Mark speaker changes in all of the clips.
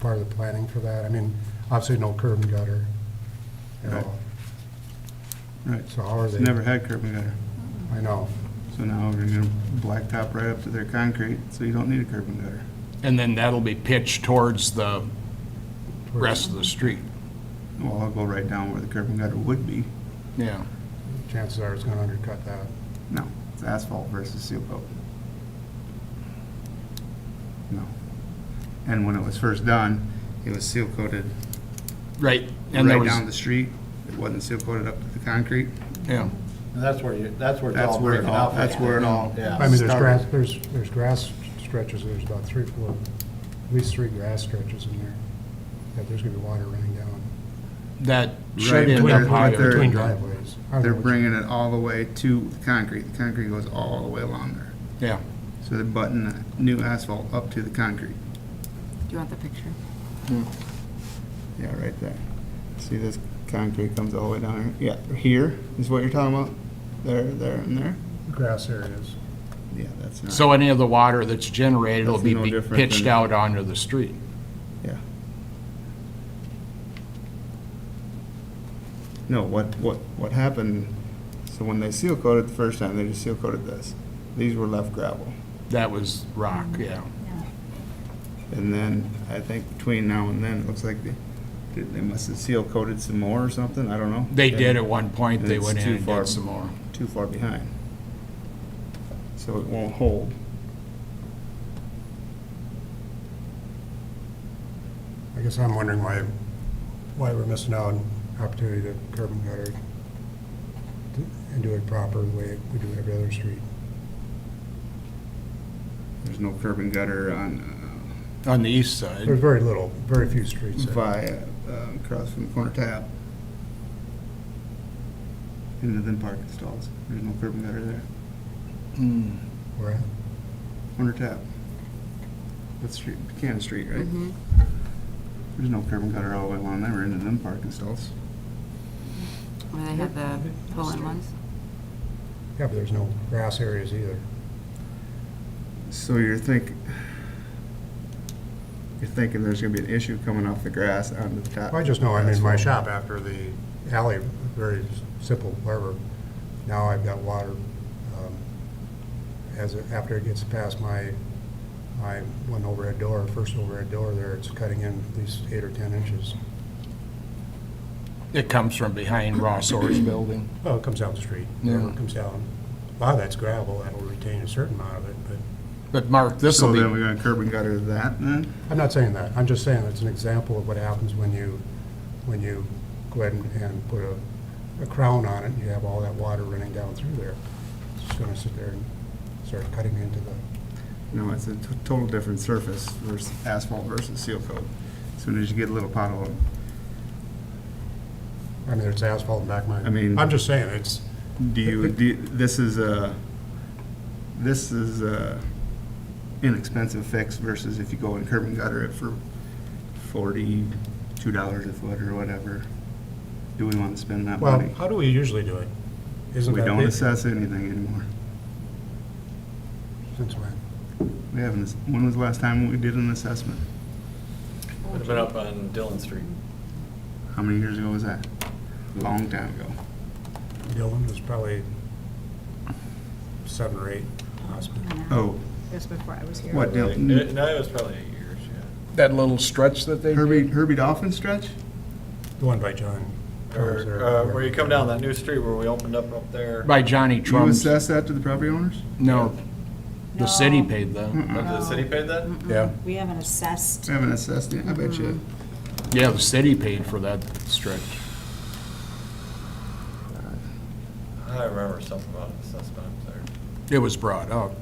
Speaker 1: part of the planning for that. I mean, obviously no curb and gutter at
Speaker 2: Right.
Speaker 1: all.
Speaker 2: Right,
Speaker 1: So how are
Speaker 2: it's
Speaker 1: they?
Speaker 2: never had curb and gutter.
Speaker 1: I know.
Speaker 2: So now we're gonna blacktop right up to their concrete, so you don't need a curb and gutter.
Speaker 3: And then that'll be pitched towards the rest of the street.
Speaker 2: Well, I'll go right down where the curb and gutter would be.
Speaker 3: Yeah.
Speaker 1: Chances are it's gonna undercut that.
Speaker 2: No, it's asphalt versus seal coat. No. And when it was first done, it was seal coated
Speaker 3: Right. And there
Speaker 2: right
Speaker 3: was,
Speaker 2: down the street. It wasn't seal coated up to the concrete.
Speaker 3: yeah.
Speaker 4: And that's where you, that's where it's
Speaker 2: That's
Speaker 4: all
Speaker 2: where it
Speaker 4: breaking
Speaker 2: all,
Speaker 4: up.
Speaker 2: that's where it all.
Speaker 4: Yeah.
Speaker 1: I mean, there's
Speaker 2: started.
Speaker 1: grass, there's, there's grass stretches, there's about three, four, at least three grass stretches in there. Yeah, there's gonna be water running down.
Speaker 3: That
Speaker 2: Right,
Speaker 3: should
Speaker 2: but
Speaker 3: end
Speaker 2: they're-
Speaker 3: up high
Speaker 2: but they're-
Speaker 1: Between
Speaker 3: between drive.
Speaker 1: driveways. I don't
Speaker 2: They're
Speaker 1: know.
Speaker 2: bringing it all the way to the concrete. The concrete goes all the way along there.
Speaker 3: Yeah.
Speaker 2: So they're butting the new asphalt up to the concrete.
Speaker 5: Do you want the picture?
Speaker 2: Yeah, right there. See this concrete comes all the way down here? Yeah, here is what you're talking about? There, there, and there?
Speaker 1: Grass areas.
Speaker 2: Yeah, that's not.
Speaker 3: So any of the water that's generated will
Speaker 2: That's
Speaker 3: be
Speaker 2: no
Speaker 3: be
Speaker 2: different
Speaker 3: pitched
Speaker 2: than-
Speaker 3: out onto the street.
Speaker 2: Yeah. No, what, what, what happened, so when they seal coated the first time, they just seal coated this. These were left gravel.
Speaker 3: That was rock, yeah.
Speaker 2: And then, I think between now and then, it looks like they, they- they must have seal coated some more or something, I don't know.
Speaker 3: They did at one point, they
Speaker 2: It's
Speaker 3: went in
Speaker 2: too
Speaker 3: and
Speaker 2: far.
Speaker 3: did some more.
Speaker 2: Too far behind. So it won't hold.
Speaker 1: I guess I'm wondering why, why we're missing out on opportunity to curb and gutter to- and do it proper the way we do every other street.
Speaker 2: There's no curb and gutter on,
Speaker 3: On the east side.
Speaker 1: There's very little, very few
Speaker 2: uh,
Speaker 1: streets. that-
Speaker 2: via, uh, across from corner tap. Into then parking stalls. There's no curb and gutter there.
Speaker 3: Hmm.
Speaker 1: we're at.
Speaker 2: Corner tap. That's street, Buchanan Street, right? There's no curb and gutter all the way along there, we're into them parking stalls.
Speaker 5: Where they have the pull-in ones?
Speaker 1: Yeah, but there's no grass areas either.
Speaker 2: So you're think, you're thinking there's gonna be an issue coming off the grass onto the top.
Speaker 1: Well, I just know, I'm in my
Speaker 2: asphalt.
Speaker 1: shop after the alley, very simple harbor. Now I've got water, um, as, it- after it gets past my, my one overhead door, first overhead door there, it's cutting in at least eight or 10 inches.
Speaker 3: It comes from behind Ross Orr's building.
Speaker 1: Well, it comes down the street,
Speaker 3: Yeah.
Speaker 1: it comes down. A lot of that's gravel, that'll retain a certain amount of it, but
Speaker 3: But Mark, this
Speaker 2: So
Speaker 3: will be.
Speaker 2: then we're gonna curb and gutter that then?
Speaker 1: I'm not saying that. I'm just saying it's an example of what happens when you, when you go ahead and- and put a, a crown on it, and you have all that water running down through there. It's just gonna sit there and start cutting into the,
Speaker 2: No, it's a t- total different surface versus asphalt versus seal coat. As Soon as you get a little pothole,
Speaker 1: I mean, there's asphalt in back of my.
Speaker 2: I mean-
Speaker 1: I'm just saying, it's,
Speaker 2: do you, do, you- this is a, this is a inexpensive fix versus if you go and curb and gutter it for forty-two dollars a foot or whatever. Do we wanna spend that
Speaker 1: well,
Speaker 2: money?
Speaker 1: how do we usually do it? Isn't
Speaker 2: We
Speaker 1: that
Speaker 2: don't
Speaker 1: the-
Speaker 2: assess anything anymore.
Speaker 1: Since when?
Speaker 2: We haven't, when was the last time we did an assessment?
Speaker 6: Would have been up on Dillon Street.
Speaker 2: How many years ago was that? Long time ago.
Speaker 1: Dylan was probably seven or eight, possibly.
Speaker 2: Oh,
Speaker 7: That's before I was here.
Speaker 2: what,
Speaker 6: No,
Speaker 2: Dil-
Speaker 6: it was probably eight years, yeah.
Speaker 3: That little stretch that they
Speaker 2: Herbie, Herbie Dolphin stretch?
Speaker 1: The one by John. Combs
Speaker 6: Or,
Speaker 1: Oh, there.
Speaker 6: uh, where you come down that new street where we opened up up
Speaker 2: Mm-hmm.
Speaker 6: there,
Speaker 3: By Johnny
Speaker 2: Do you
Speaker 3: Trump's.
Speaker 2: assess that to the property owners?
Speaker 3: No, the city
Speaker 7: No,
Speaker 3: paid that.
Speaker 2: Mm-mm.
Speaker 6: the city paid that?
Speaker 1: Yeah.
Speaker 7: We haven't assessed.
Speaker 2: I haven't assessed it, I bet you.
Speaker 3: Yeah, the city paid for that stretch.
Speaker 6: I remember something about an assessment up there.
Speaker 3: It was brought up,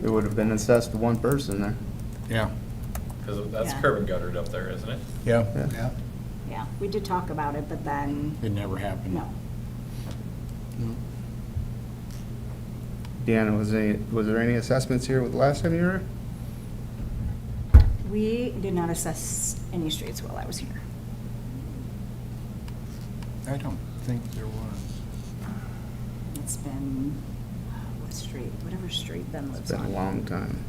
Speaker 2: It would have been assessed to one person there.
Speaker 3: yeah.
Speaker 6: Because that's
Speaker 7: Yeah.
Speaker 6: curb and guttered up there, isn't it?
Speaker 3: Yeah.
Speaker 2: Yeah.
Speaker 7: Yeah, we did talk about it, but then,
Speaker 3: It never happened.
Speaker 7: no.
Speaker 2: Deanna, was any, was there any assessments here with the last time you were?
Speaker 7: We did not assess any streets while I was here.
Speaker 3: I don't think there was.
Speaker 7: It's been, what street, whatever street Ben
Speaker 2: It's
Speaker 7: lives
Speaker 2: been a
Speaker 7: on.
Speaker 2: long time.